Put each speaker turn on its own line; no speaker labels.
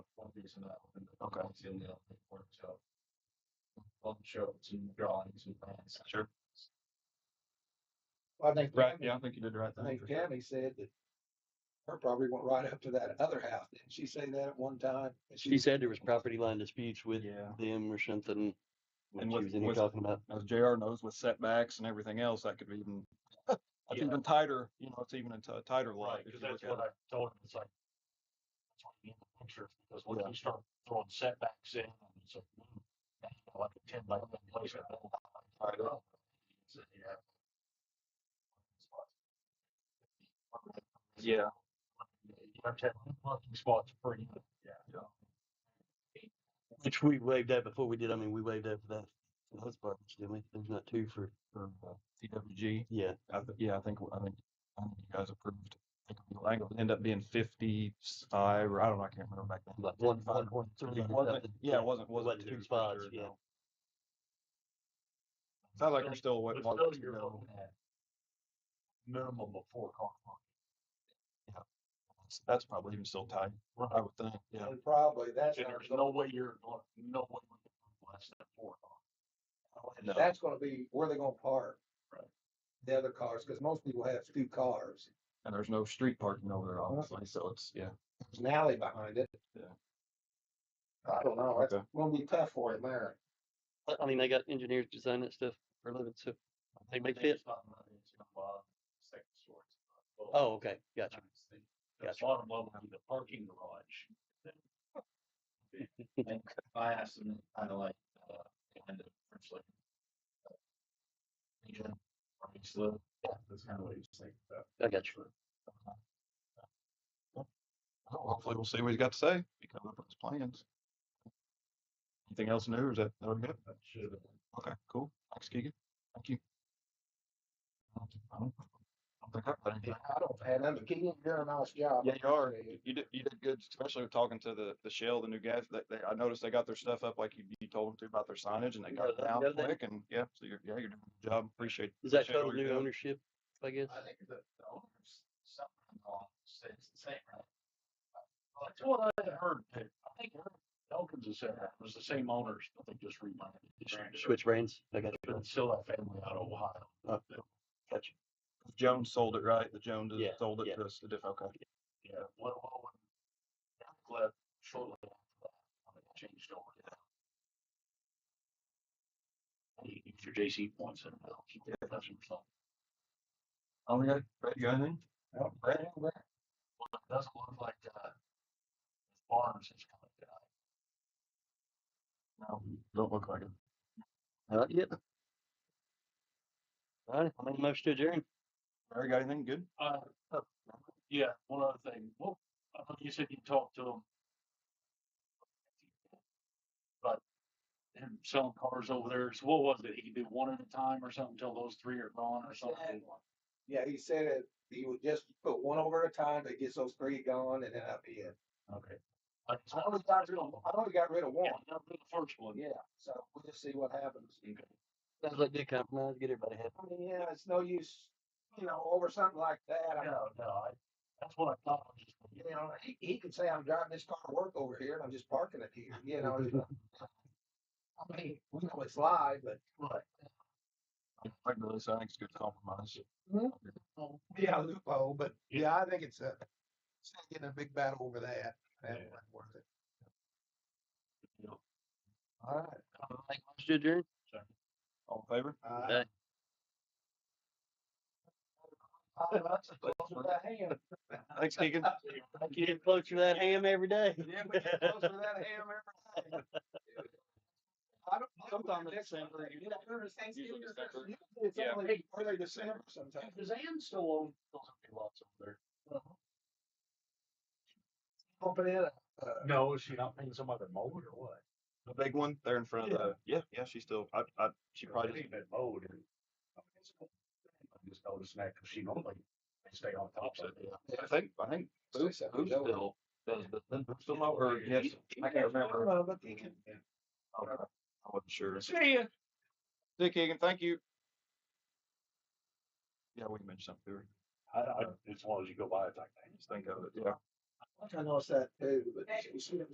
drawings and that. and
Okay.
it's in the report, so. I'll show some drawings and plans.
Sure.
Well, I think.
Right,
Tammy-
yeah, I think you did the right
I
thing.
think
for sure.
Tammy said that her property went right up to that other house. Didn't she say that at one time? And
She said there was property line disputes with
Yeah,
them or something. What
And
she
with-
was in here
with-
talking about.
as JR knows with setbacks and everything else, that could be even, it's
Yeah.
even tighter, you know, it's even a t- tighter lot.
Right,
if
because
you
that's
look at
what I told him, it's like. That's why you need the pictures, because once
Yeah.
you start throwing setbacks in, it's like, mm, that's like a ten by eleven place. I don't know. I don't know. So, yeah.
it. Yeah,
You have to have parking spots per unit.
Which we waived that before we did. I mean, we waived that for that. for Those parts, didn't we? There's not two for,
for uh, TWG,
yeah.
I th- yeah, I think, I think, I think you guys approved. I think it'll end up- End up being fifty-five, or I don't know, I can't remember back then.
Like one,
Five.
one, one, three.
It wasn't, yeah, it wasn't,
Wasn't
wasn't
two
two
spots,
spots,
yeah.
yeah. Sounds like you're still
But
waiting.
still, you're looking at minimum of four car park.
That's probably even still tight, I would think, yeah.
And probably that's,
And
not
there's
gonna-
no way you're, going- no way we can do less than four car.
No.
that's gonna be where they're gonna park.
Right.
The other cars, because most people have two cars.
And there's no street parking over there, obviously, so it's, yeah.
There's an alley behind it.
Yeah.
I don't know. It's
Okay.
gonna be tough for him there.
I- I mean, they got engineers design that stuff for a living, so they make
They
fit.
just talking about it's gonna bother the second story. Well,
Oh, okay, gotcha.
obviously, The
Gotcha.
bottom level would be the parking garage. And I asked them, kind of like, uh, kind of, first like. uh, Region, or each little, yeah, that's kind of uh, what he was thinking about.
I got you.
Well, Hopefully we'll see what he's got to say, he comes up with his plans. Anything else new, or is that, that'll be it?
That should have been.
Okay, cool, thanks Keegan, thank you. I don't I don't think I've got anything.
I don't, and I'm getting, you're a nice job.
Yeah, you are. You did, you did good, especially with talking to the, the Shell, the new guys, they, they, I noticed they got their stuff up like you, you told them to about their signage and they got it
Yeah,
down
yeah, they-
quick and, yeah, so you're, yeah, you're doing a good job, appreciate.
Is that
appreciate all
total
you're
new
doing.
ownership, I guess?
I think the, the owners, something on, said it's the same, right? Well, That's what I had heard, I think Elkins has said that, it was the same owners, but they just rebranded.
Switch brands. I got you.
But it's still that family out of Ohio.
Oh. Gotcha.
Jones sold it, right? The Jones
Yeah,
sold
yeah.
it to us, the diff, okay.
Yeah, well, well, when Jack left shortly after that, I mean, it changed over to. Hey, use your JC points and it'll keep your production something.
Oh, yeah, Brad, you got anything?
Nope.
Brad?
Well, it doesn't look like, uh, Barnes is coming down.
No, don't look like it.
Not yet. All right, I'm gonna motion to adjourn.
Brad, got anything good?
Uh,
Oh.
uh, yeah, one other thing. Well, I know you said you talked to him. But him selling cars over there, so what was it? He could do one at a time or something until those three are gone or something?
Yeah, he said it, he would just put one over at a time to get those three gone and then I'd be in.
Okay. I just wanted to got rid of one.
I only got rid of
Yeah,
one,
I got rid of the first one.
yeah, so we'll just see what happens.
Okay.
Sounds like good compromise. Get everybody happy.
I mean, yeah, it's no use, you know, over something like that. I mean,
No, no, I, that's what I thought. I was just
you
gonna get.
know, he, he could say I'm driving this car to work over here and I'm just parking it here, you know. it's like- I mean, we know it's live, but
Right.
I I really think it's a good compromise.
yeah, loophole, but
Yeah.
yeah, I think it's a, it's not getting a big battle over that. That
Yeah.
wasn't worth it.
You know,
All right.
Motion to adjourn.
All in favor?
Uh,
Okay.
I- that's a close with that hand.
Thanks, Keegan.
You get close to that ham every day.
Yeah, we get close with that ham every day. I don't.
Sometime in
December.
December.
You know, there's Thanksgiving,
Usually December.
usually It's
Yeah.
only early December sometimes.
Does Ann still own those empty lots over there?
Pumping in, uh,
No, is she not paying some other mower or what?
The big one there in front of the, yeah, yeah, she's still, I, I, she
Probably
probably,
didn't even mowed and. I just noticed that because she normally they stay on top of it.
I think, I think.
Say something, Joe.
does the- does Still not, or yes, I can't remember.
Well, but you can-
Okay. I wasn't sure.
See ya.
Dick Egan, thank you. Yeah, we mentioned something, to her.
I, I, as long as you go by, it's like,
just think of it, yeah.
I noticed that too, but she- she